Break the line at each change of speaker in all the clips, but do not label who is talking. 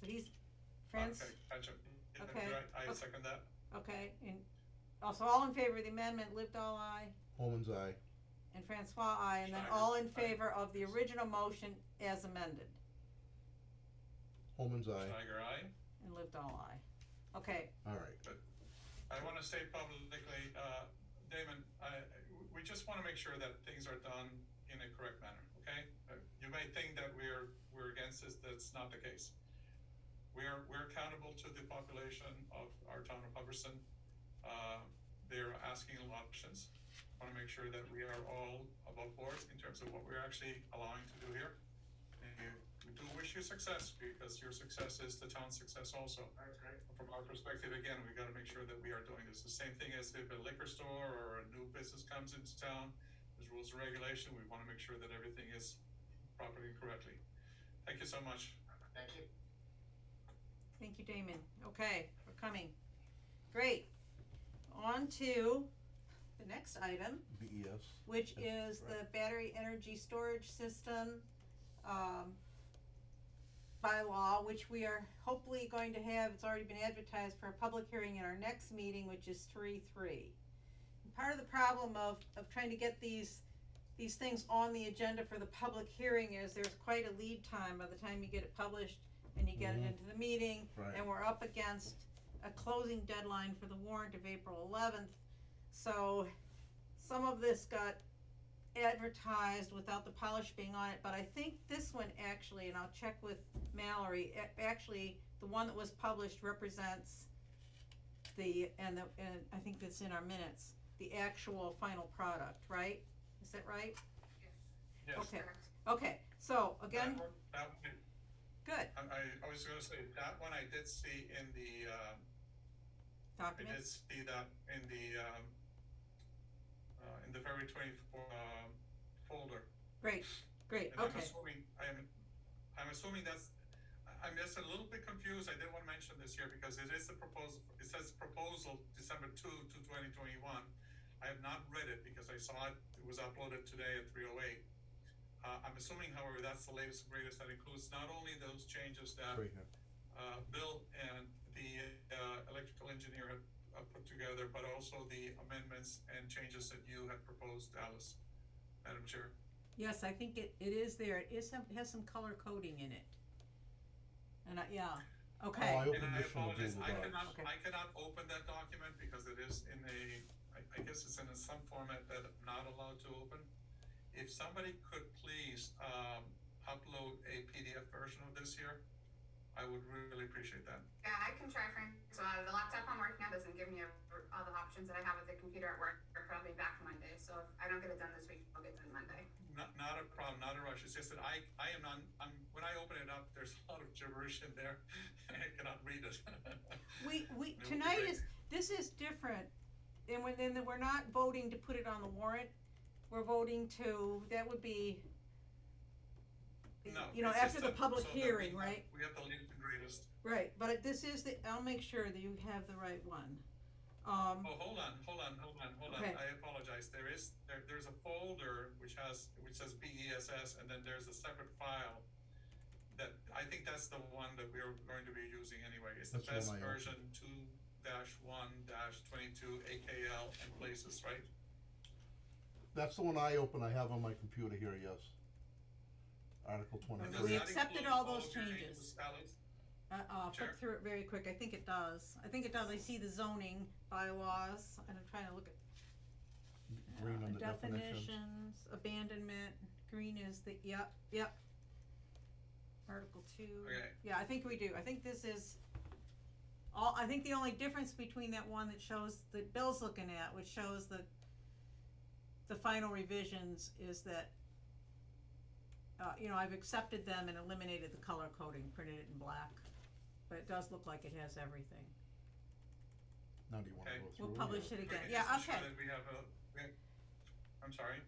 he's, France,
Okay, gotcha. Yeah,
Okay.
right, I
Okay.
second that.
okay, and also all in favor of the amendment, lived all I,
Holman's eye.
and Francois I, and then
Schneider,
all in
aye.
favor of the original motion as amended,
Holman's eye.
Schneider, aye.
and lived all I. Okay,
All right.
I wanna say publicly, uh, Damon, I, we just wanna make sure that things are done in a correct manner, okay? Uh, You may think that we're, we're against this, that's not the case. We're, we're accountable to the population of our town of Hubbardson. Uh, they're asking a lot of questions. Wanna make sure that we are all above board in terms of what we're actually allowing to do here. And you- we do wish you success, because your success is the town's success also from our perspective, again, we gotta make sure that we are doing this. The same thing as if a liquor store or a new business comes into town, there's rules and regulation, we wanna make sure that everything is properly and correctly. Thank you so much.
Thank you.
Thank you, Damon. Okay, we're coming. Great. On to the next item,
BES.
which
Yes,
is the battery energy storage system, um, bylaw, which we are hopefully going to have, it's already been advertised for a public hearing in our next meeting, which is three, three. Part of the problem of, of trying to get these, these things on the agenda for the public hearing is there's quite a lead time by the time you get it published and you get it
Mhm.
into the meeting,
Right.
and we're up against a closing deadline for the warrant of April eleventh. So some of this got advertised without the polish being on it, but I think this one actually, and I'll check with Mallory, a- actually, the one that was published represents the, and the, and I think that's in our minutes, the actual final product, right? Is that right?
Yes.
Okay, okay, so again,
That one- That one,
good
I, I- I was gonna say, that one I did see in the, um, I
document,
did see that in the, um, uh, in the February twenty-four, um, folder.
great, great,
And I'm
okay,
assuming, I'm, I'm assuming that's, I- I'm just a little bit confused, I didn't wanna mention this here because it is a proposal, it says proposal December two to twenty twenty-one. I have not read it because I saw it, it was uploaded today at three oh eight. Uh, I'm assuming however, that's the latest and greatest, that includes not only those changes that
Right here.
uh, Bill and the uh, electrical engineer had uh, put together, but also the amendments and changes that you had proposed, Alice, Madam Chair.
yes, I think it, it is there, it is, have- has some color coding in it. And I, yeah, okay.
Oh, I
And
opened
I
this from the
apologize,
Google
I cannot,
Docs.
Okay.
I cannot open that document because it is in a, I, I guess it's in a- some format that I'm not allowed to open. If somebody could please, um, upload a PDF version of this here, I would really appreciate that.
Yeah, I can try Francois. The laptop I'm working on doesn't give me a- all the options that I have with the computer at work. I'll be back Monday, so if I don't get it done this week, I'll get it done Monday.
Not, not a problem, not a rush, it's just that I, I am not, I'm, when I open it up, there's a lot of gibberish in there, and I cannot read it.
We, we,
It would be
tonight
great.
is, this is different, and when, then we're not voting to put it on the warrant, we're voting to, that would be,
No,
you know,
it's just
after the
that-
public
so that we
hearing,
have-
right?
We have the latest and greatest.
Right, but it- this is the, I'll make sure that you have the right one. Um,
Oh, hold on, hold on, hold on, hold on.
Okay.
I apologize. There is, there, there's a folder which has, which says BESS, and then there's a separate file. That, I think that's the one that we're going to be using anyway. It's the best
That's the one I
version two dash one dash twenty-two AKL and places, right?
That's the one I opened. I have on my computer here. Yes. Article
We
And does
twenty-three.
that
accepted
include
all those
of your
changes.
Alex?
uh, I'll flip
Oh, Sure.
through it very quick, I think it does, I think it does, I see the zoning bylaws, and I'm trying to look at
Green
Uh,
on the definitions.
Definitions, abandonment, green is the, yep, yep. Article two.
Okay.
Yeah, I think we do, I think this is, all, I think the only difference between that one that shows, that Bill's looking at, which shows the, the final revisions is that, uh, you know, I've accepted them and eliminated the color coding, printed it in black, but it does look like it has everything.
Now, do you want to
Okay.
go through?
We'll
or-
publish it again,
Okay,
yeah,
just to show
okay,
that we have a- we- I'm sorry.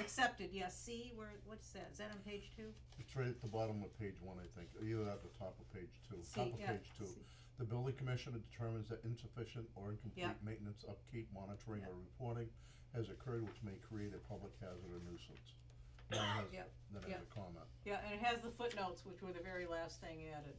accepted, yeah, see, where, what's that, is that on page two?
It's right at the bottom of page one, I think, or either at the top of page two,
See,
top of
yeah,
page two.
see.
The building commissioner determines that insufficient or incomplete
Yeah.
maintenance, upkeep, monitoring,
Yeah.
or reporting has occurred which may create a public hazard or nuisance. Then it has,
Yep,
then it has
yep.
a comment.
Yeah, and it has the footnotes, which were the very last thing added.